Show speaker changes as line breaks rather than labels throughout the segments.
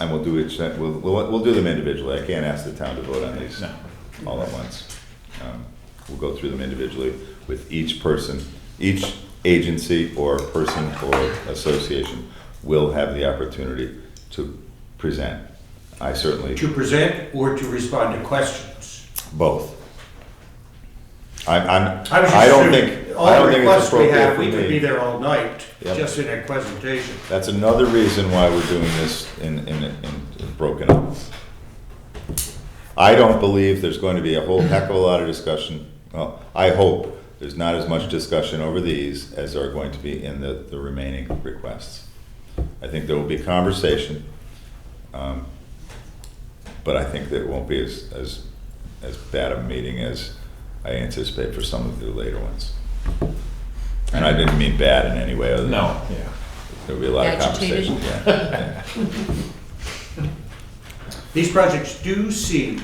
And we'll do each, we'll, we'll, we'll do them individually. I can't ask the town to vote on these
No.
all at once. Um, We'll go through them individually with each person, each agency or person or association will have the opportunity to present. I certainly,
To present or to respond to questions?
both. I'm, I'm,
I was
I don't
just
think, I
All
don't think it's
requests we have,
appropriate for
we could be
me.
there all night,
Yep.
just in a presentation.
That's another reason why we're doing this in, in, in broken up. I don't believe there's going to be a whole heck of a lot of discussion. Well, I hope there's not as much discussion over these as there are going to be in the, the remaining requests. I think there will be conversation, um, but I think that it won't be as, as, as bad a meeting as I anticipate for some of the later ones. And I didn't mean bad in any way other than.
No, yeah.
There'll be a lot of
Agitated.
conversation, yeah.
These projects do seem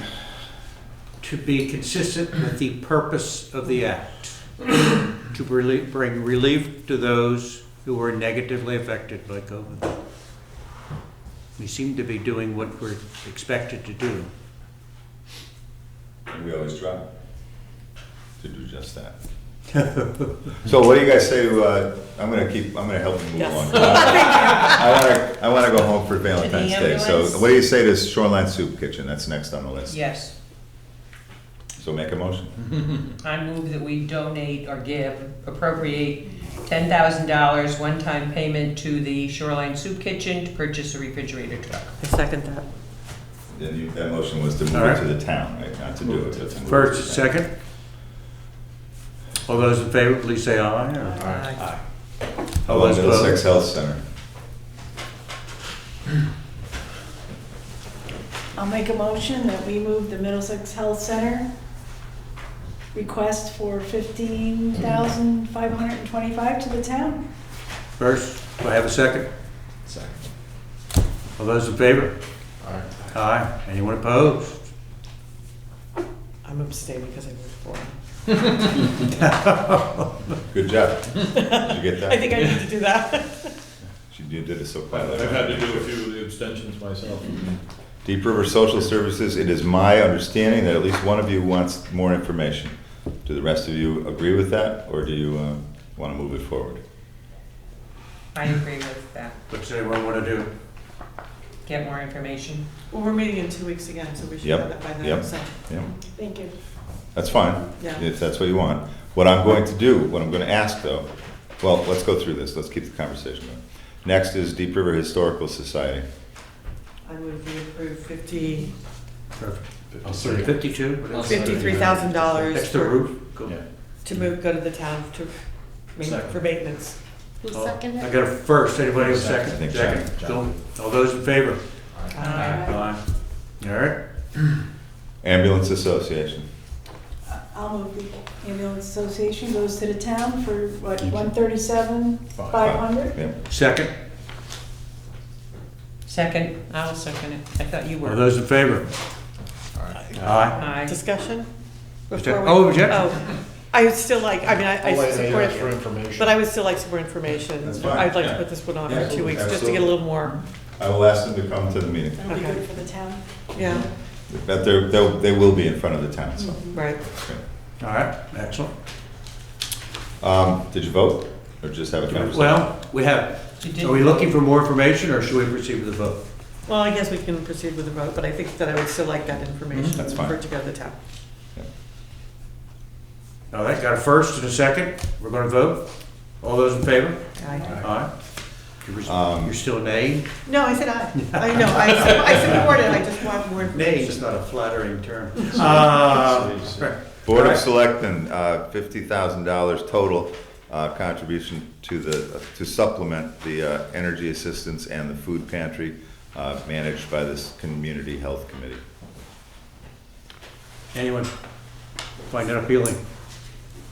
to be consistent with the purpose of the act, to relie- bring relief to those who were negatively affected by COVID. We seem to be doing what we're expected to do.
yeah. We always try to do just that. So what do you guys say to, uh, I'm gonna keep, I'm gonna help you move
Yes.
along. I wanna, I wanna go home for Valentine's
To the
Day, so
ambulance.
what do you say to Shoreline Soup Kitchen, that's next on the list?
Yes,
So make a motion.
I move that we donate or give, appropriate ten thousand dollars one-time payment to the Shoreline Soup Kitchen to purchase a refrigerator truck.
I second that.
Then you, that motion was to move it
Alright.
to the town, right, not to do it. but to move it to
First,
the town.
second? All those in favor, please say aye. or-
Aye.
All
Hello,
those
Middlesex
opposed?
Health Center,
I'll make a motion that we move the Middlesex Health Center request for fifteen thousand five hundred and twenty-five to the town.
First, do I have a second?
Second.
All those in favor?
All right.
Aye. Anyone opposed?
I'm abstaining because I voted for him.
good job. Did you get
I
that?
think I need to do that.
She- You did it so quietly.
I've had to do a few of the abstentions myself.
Deep River Social Services, it is my understanding that at least one of you wants more information. Do the rest of you agree with that, or do you uh, want to move it forward?
I agree with that.
What's anyone want to do?
Get more information.
Well, we're meeting in two weeks again, so we should
Yep,
have that by then,
yep.
so,
Yeah,
Thank you.
that's fine,
Yeah.
if that's what you want. What I'm going to do, what I'm going to ask though, well, let's go through this, let's keep the conversation going. Next is Deep River Historical Society.
I move we approve fifty,
Perfect. Fifty-two? What else?
fifty-three thousand dollars
That's the
to
roof? Go.
Yeah.
move, go to the town to, ma-
Second.
for maintenance.
Who
Oh,
seconded
I
it?
got a first, anybody have a
Second.
I
second?
think
Go. All those in favor?
Aye.
Aye. All right,
Ambulance Association,
I'll move the ambulance association goes to the town for what, one thirty-seven, five hundred?
yeah.
second,
Second, I'll second it. I thought you
all
were.
those in favor? Aye.
Aye.
Discussion?
Objection.
Before we-
Oh, objection.
Oh. I would still like, I mean, I, I support
For
it,
information.
but I would still like some more information.
That's fine,
I'd like to
yeah.
put this one on
Yeah,
for two weeks, just to get a
absolutely.
little more,
I will ask them to come to the meeting,
That'll be
Okay.
good for the town.
yeah,
but they're, they'll- they will be in front of the town, so.
right.
okay.
All right, excellent.
Um, Did you vote, or just have a conversation?
Well, we have,
You did-
are we looking for more information or should we proceed with the vote?
Well, I guess we can proceed with the vote, but I think that I would still like that information
That's
for
fine.
it to go to the town.
All right, got a first and a second, we're gonna vote. All those in favor?
Aye.
Aye. You're
Um,
you're still nay?
No, I said aye. I know, I, su- I support it, I just want more
Nay
information.
is not a flattering term. Uh,
Board of Selectmen, uh, $50,000 total uh, contribution to the, to supplement the uh, energy assistance and the food pantry uh, managed by this Community Health Committee.
Anyone find that appealing?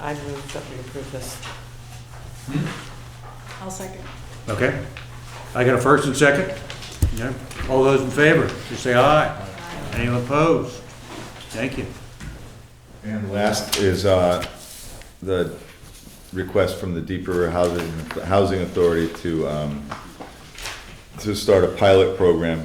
I move that we approve this.
I'll second.
Okay. I got a first and second? Yeah. All those in favor, just say aye. Anyone opposed? Thank you.
And last is uh, the request from the Deep River Housing, Housing Authority to, um, to start a pilot program